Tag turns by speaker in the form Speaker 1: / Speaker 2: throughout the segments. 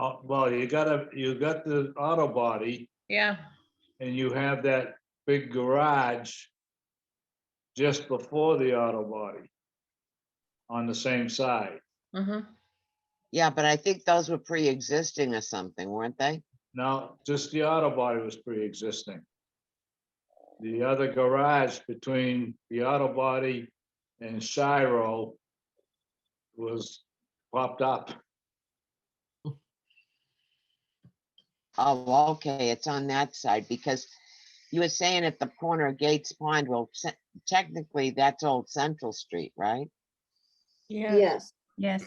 Speaker 1: Uh, well, you gotta, you got the auto body
Speaker 2: Yeah,
Speaker 1: and you have that big garage just before the auto body on the same side.
Speaker 2: mhm.
Speaker 3: Yeah, but I think those were pre-existing or something, weren't they?
Speaker 1: Now, just the auto body was pre-existing. The other garage between the auto body and Shiro was popped up.
Speaker 3: Oh, well, okay, it's on that side because you were saying at the corner of Gates Pond, well, ce- technically, that's old Central Street, right?
Speaker 4: Yes,
Speaker 5: Yes,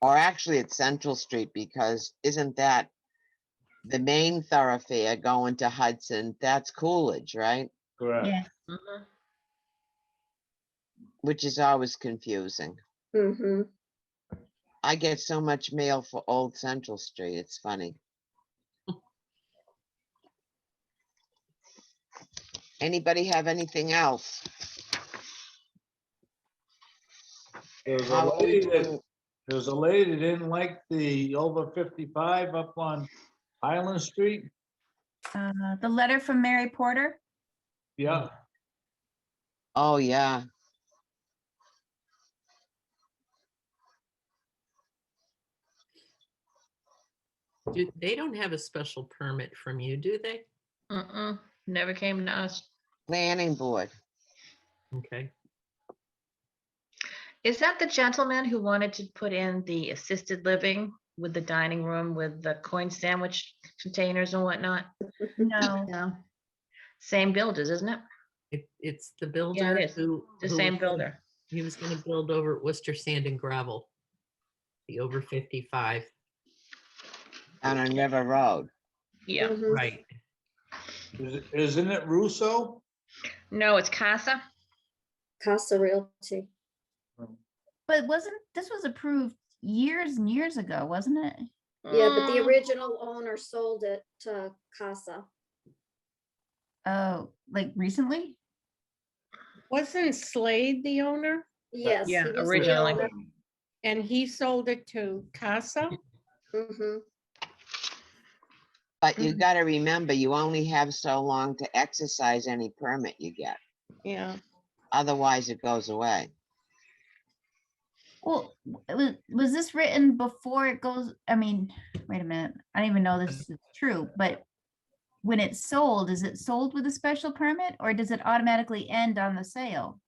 Speaker 3: Or actually, it's Central Street because isn't that the main thoroughfare going to Hudson? That's Coolidge, right?
Speaker 1: Correct.
Speaker 5: yes,
Speaker 2: mhm.
Speaker 3: Which is always confusing.
Speaker 4: mm-hmm,
Speaker 3: I get so much mail for Old Central Street. It's funny. Anybody have anything else?
Speaker 1: There's a
Speaker 3: How are we
Speaker 1: lady that,
Speaker 3: doing?
Speaker 1: there's a lady that didn't like the over fifty-five up on Highland Street.
Speaker 5: uh, the letter from Mary Porter,
Speaker 1: Yeah,
Speaker 3: Oh, yeah.
Speaker 6: Do, they don't have a special permit from you, do they?
Speaker 2: Mm-mm, never came to us.
Speaker 3: Planning board.
Speaker 6: Okay.
Speaker 2: Is that the gentleman who wanted to put in the assisted living with the dining room with the coin sandwich containers and whatnot?
Speaker 5: no,
Speaker 2: No. Same builders, isn't it?
Speaker 6: It, it's the builder
Speaker 2: is.
Speaker 6: who.
Speaker 2: The
Speaker 6: who
Speaker 2: same
Speaker 6: was gonna-
Speaker 2: builder.
Speaker 6: He was gonna build over at Worcester Sand and Gravel. The over fifty-five,
Speaker 3: Down on River Road.
Speaker 2: Yeah.
Speaker 4: mhm.
Speaker 6: right,
Speaker 1: Is- isn't it Russo?
Speaker 2: No, it's Casa.
Speaker 4: Casa Realty.
Speaker 5: but wasn't, this was approved years and years ago, wasn't it?
Speaker 4: Yeah, but the
Speaker 2: Mm,
Speaker 4: original owner sold it to Casa.
Speaker 5: Oh, like recently?
Speaker 7: Wasn't Slade the owner?
Speaker 4: Yes.
Speaker 2: yeah, originally.
Speaker 7: And he sold it to Casa?
Speaker 4: Mm-hmm,
Speaker 3: But you gotta remember, you only have so long to exercise any permit you get.
Speaker 7: Yeah.
Speaker 3: Otherwise, it goes away.
Speaker 5: Well, was, was this written before it goes, I mean, wait a minute, I don't even know this is true, but when it's sold, is it sold with a special permit or does it automatically end on the sale?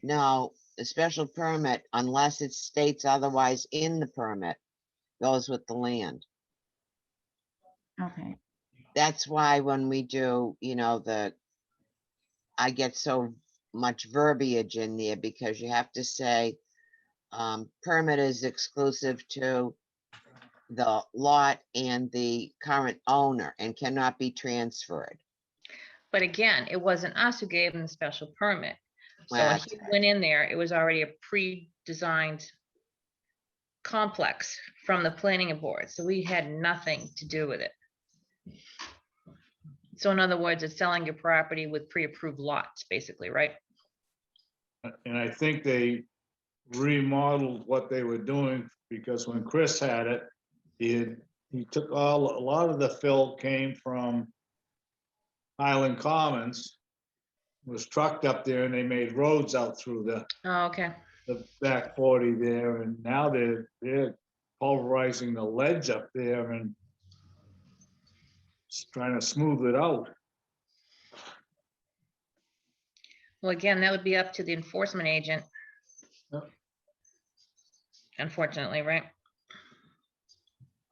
Speaker 3: No, a special permit, unless it states otherwise in the permit, goes with the land.
Speaker 5: Okay,
Speaker 3: that's why when we do, you know, the, I get so much verbiage in there because you have to say, um, permit is exclusive to the lot and the current owner and cannot be transferred.
Speaker 2: But again, it wasn't us who gave him the special permit. So
Speaker 3: Well,
Speaker 2: when
Speaker 3: that's
Speaker 2: he went in there, it was already a pre-designed complex from the planning board, so we had nothing to do with it. So in other words, it's selling your property with pre-approved lots, basically, right?
Speaker 1: And I think they remodeled what they were doing because when Chris had it, he had, he took all, a lot of the fill came from Highland Commons, was trucked up there and they made roads out through the,
Speaker 2: Oh, okay.
Speaker 1: the back forty there and now they're, they're pulverizing the ledge up there and s- trying to smooth it out.
Speaker 2: Well, again, that would be up to the enforcement agent.
Speaker 1: Yep.
Speaker 2: Unfortunately, right?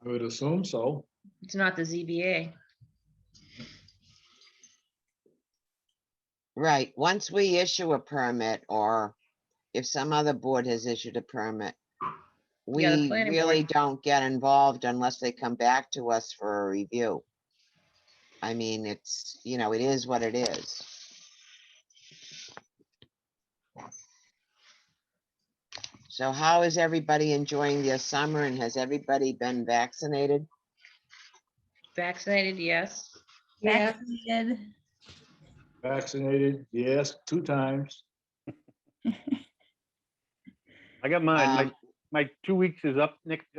Speaker 1: I would assume so.
Speaker 2: It's not the ZBA.
Speaker 3: Right, once we issue a permit or if some other board has issued a permit, we
Speaker 2: Yeah, the planning board-
Speaker 3: really don't get involved unless they come back to us for a review. I mean, it's, you know, it is what it is. So how is everybody enjoying their summer and has everybody been vaccinated?
Speaker 2: Vaccinated, yes.
Speaker 7: Yeah.
Speaker 5: vaccinated,
Speaker 1: Vaccinated, yes, two times.
Speaker 8: I got mine.
Speaker 3: Um,
Speaker 8: My, my two weeks is up next,